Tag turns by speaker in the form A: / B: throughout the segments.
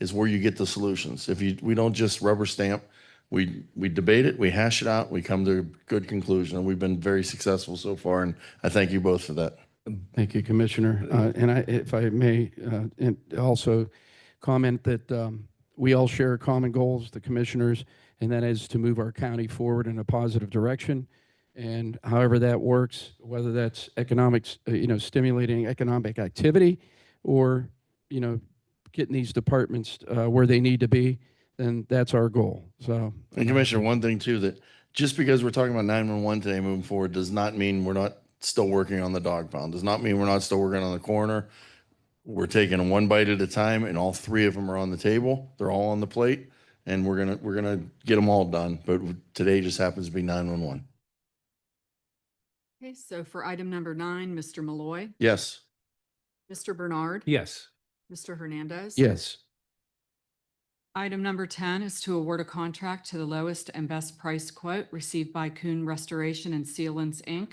A: is where you get the solutions. If you, we don't just rubber stamp, we, we debate it, we hash it out, we come to a good conclusion, and we've been very successful so far, and I thank you both for that.
B: Thank you, Commissioner. Uh, And I, if I may, uh, and also comment that um, we all share common goals, the commissioners, and that is to move our county forward in a positive direction. And however that works, whether that's economics, uh, you know, stimulating economic activity or, you know, getting these departments uh, where they need to be, then that's our goal. So uh,
A: And Commissioner, one thing too, that just because we're talking about nine-one-one today moving forward does not mean we're not still working on the dog pound, does not mean we're not still working on the corner. We're taking them one bite at a time and all three of them are on the table. They're all on the plate. And we're gonna, we're gonna get them all done, but today just happens to be nine-one-one.
C: Okay, so for item number nine, Mr. Malloy,
A: Yes.
C: Mr. Bernard.
D: Yes.
C: Mr. Hernandez.
B: yes,
C: Item number ten is to award a contract to the lowest and best price quote received by Coon Restoration and Sealants, Inc.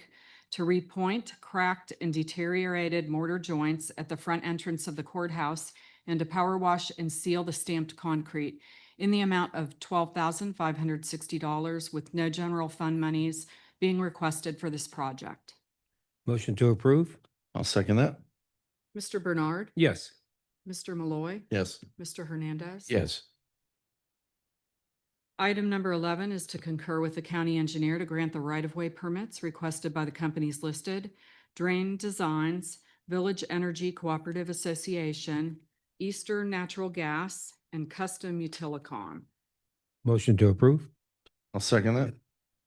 C: to repoint cracked and deteriorated mortar joints at the front entrance of the courthouse and to power wash and seal the stamped concrete in the amount of twelve thousand five hundred sixty dollars with no general fund monies being requested for this project.
D: Motion to approve?
A: I'll second that.
C: Mr. Bernard.
D: Yes.
C: Mr. Malloy.
A: Yes.
C: Mr. Hernandez.
B: yes,
C: Item number 11 is to concur with the county engineer to grant the right-of-way permits requested by the companies listed, Drain Designs, Village Energy Cooperative Association, Eastern Natural Gas, and Custom Utilicon.
D: Motion to approve?
A: I'll second that.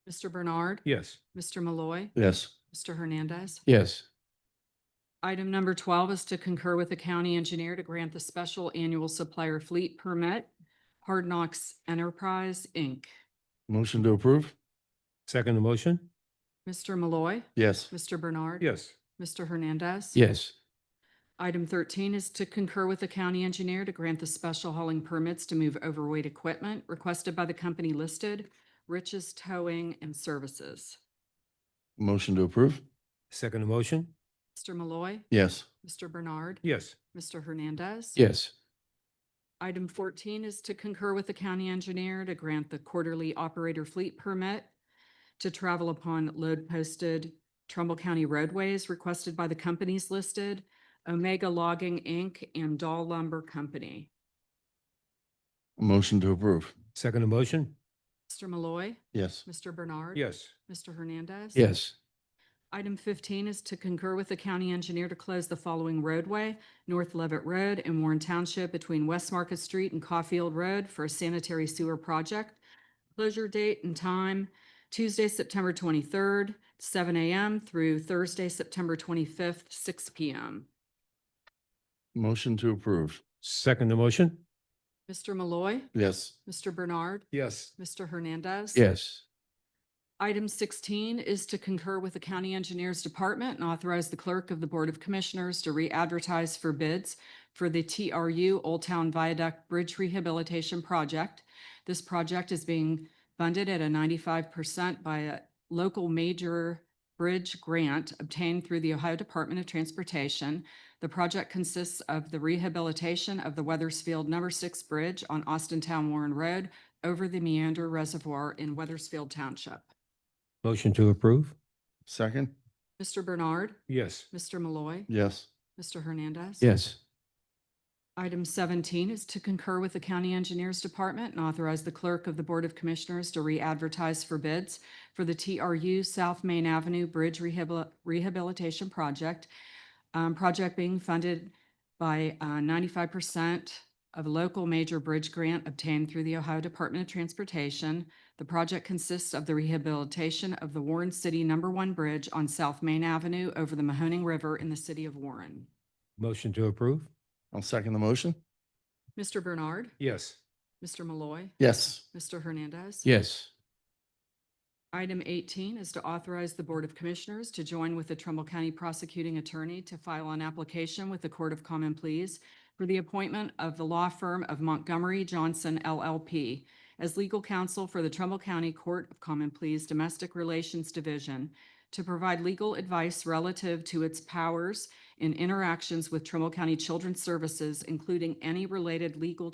C: Mr. Bernard.
D: Yes.
C: Mr. Malloy.
A: Yes.
C: Mr. Hernandez.
B: yes,
C: Item number twelve is to concur with the county engineer to grant the special annual supplier fleet permit, Hard Knocks Enterprise, Inc.
A: Motion to approve?
D: Second motion?
C: Mr. Malloy.
A: Yes.
C: Mr. Bernard.
D: Yes.
C: Mr. Hernandez.
B: yes,
C: Item thirteen is to concur with the county engineer to grant the special hauling permits to move overweight equipment requested by the company listed, Riches Towing and Services.
A: Motion to approve?
D: Second motion?
C: Mr. Malloy,
A: Yes.
C: Mr. Bernard,
D: Yes.
C: Mr. Hernandez.
B: yes,
C: Item fourteen is to concur with the county engineer to grant the quarterly operator fleet permit to travel upon load posted Trumbull County roadways requested by the companies listed, Omega Logging, Inc. and Dahl Lumber Company.
A: Motion to approve?
D: Second motion?
C: Mr. Malloy,
A: Yes.
C: Mr. Bernard.
D: Yes.
C: Mr. Hernandez.
B: yes,
C: Item fifteen is to concur with the county engineer to close the following roadway, North Levitt Road in Warren Township between West Market Street and Caulfield Road for a sanitary sewer project. Closure date and time, Tuesday, September twenty-third, seven AM through Thursday, September twenty-fifth, six PM.
A: Motion to approve?
D: Second motion?
C: Mr. Malloy,
A: Yes.
C: Mr. Bernard,
D: Yes.
C: Mr. Hernandez.
B: yes,
C: Item sixteen is to concur with the county engineers department and authorize the clerk of the Board of Commissioners to re-advertise for bids for the TRU Old Town Viaduct Bridge Rehabilitation Project. This project is being funded at a ninety-five percent by a local major bridge grant obtained through the Ohio Department of Transportation. The project consists of the rehabilitation of the Weathersfield Number Six Bridge on Austin Town Warren Road over the Meander Reservoir in Weathersfield Township.
D: Motion to approve?
A: Second?
C: Mr. Bernard,
D: Yes.
C: Mr. Malloy,
A: Yes.
C: Mr. Hernandez.
B: yes,
C: Item seventeen is to concur with the county engineers department and authorize the clerk of the Board of Commissioners to re-advertise for bids for the TRU South Main Avenue Bridge Rehabil- Rehabilitation Project. Um, project being funded by uh, ninety-five percent of local major bridge grant obtained through the Ohio Department of Transportation. The project consists of the rehabilitation of the Warren City Number One Bridge on South Main Avenue over the Mahoning River in the city of Warren.
D: Motion to approve?
A: I'll second the motion?
C: Mr. Bernard,
D: Yes.
C: Mr. Malloy.
A: Yes.
C: Mr. Hernandez.
B: yes,
C: Item eighteen is to authorize the Board of Commissioners to join with the Trumbull County Prosecuting Attorney to file an application with the Court of Common Pleas for the appointment of the law firm of Montgomery Johnson LLP as legal counsel for the Trumbull County Court of Common Pleas Domestic Relations Division to provide legal advice relative to its powers in interactions with Trumbull County Children's Services, including any related legal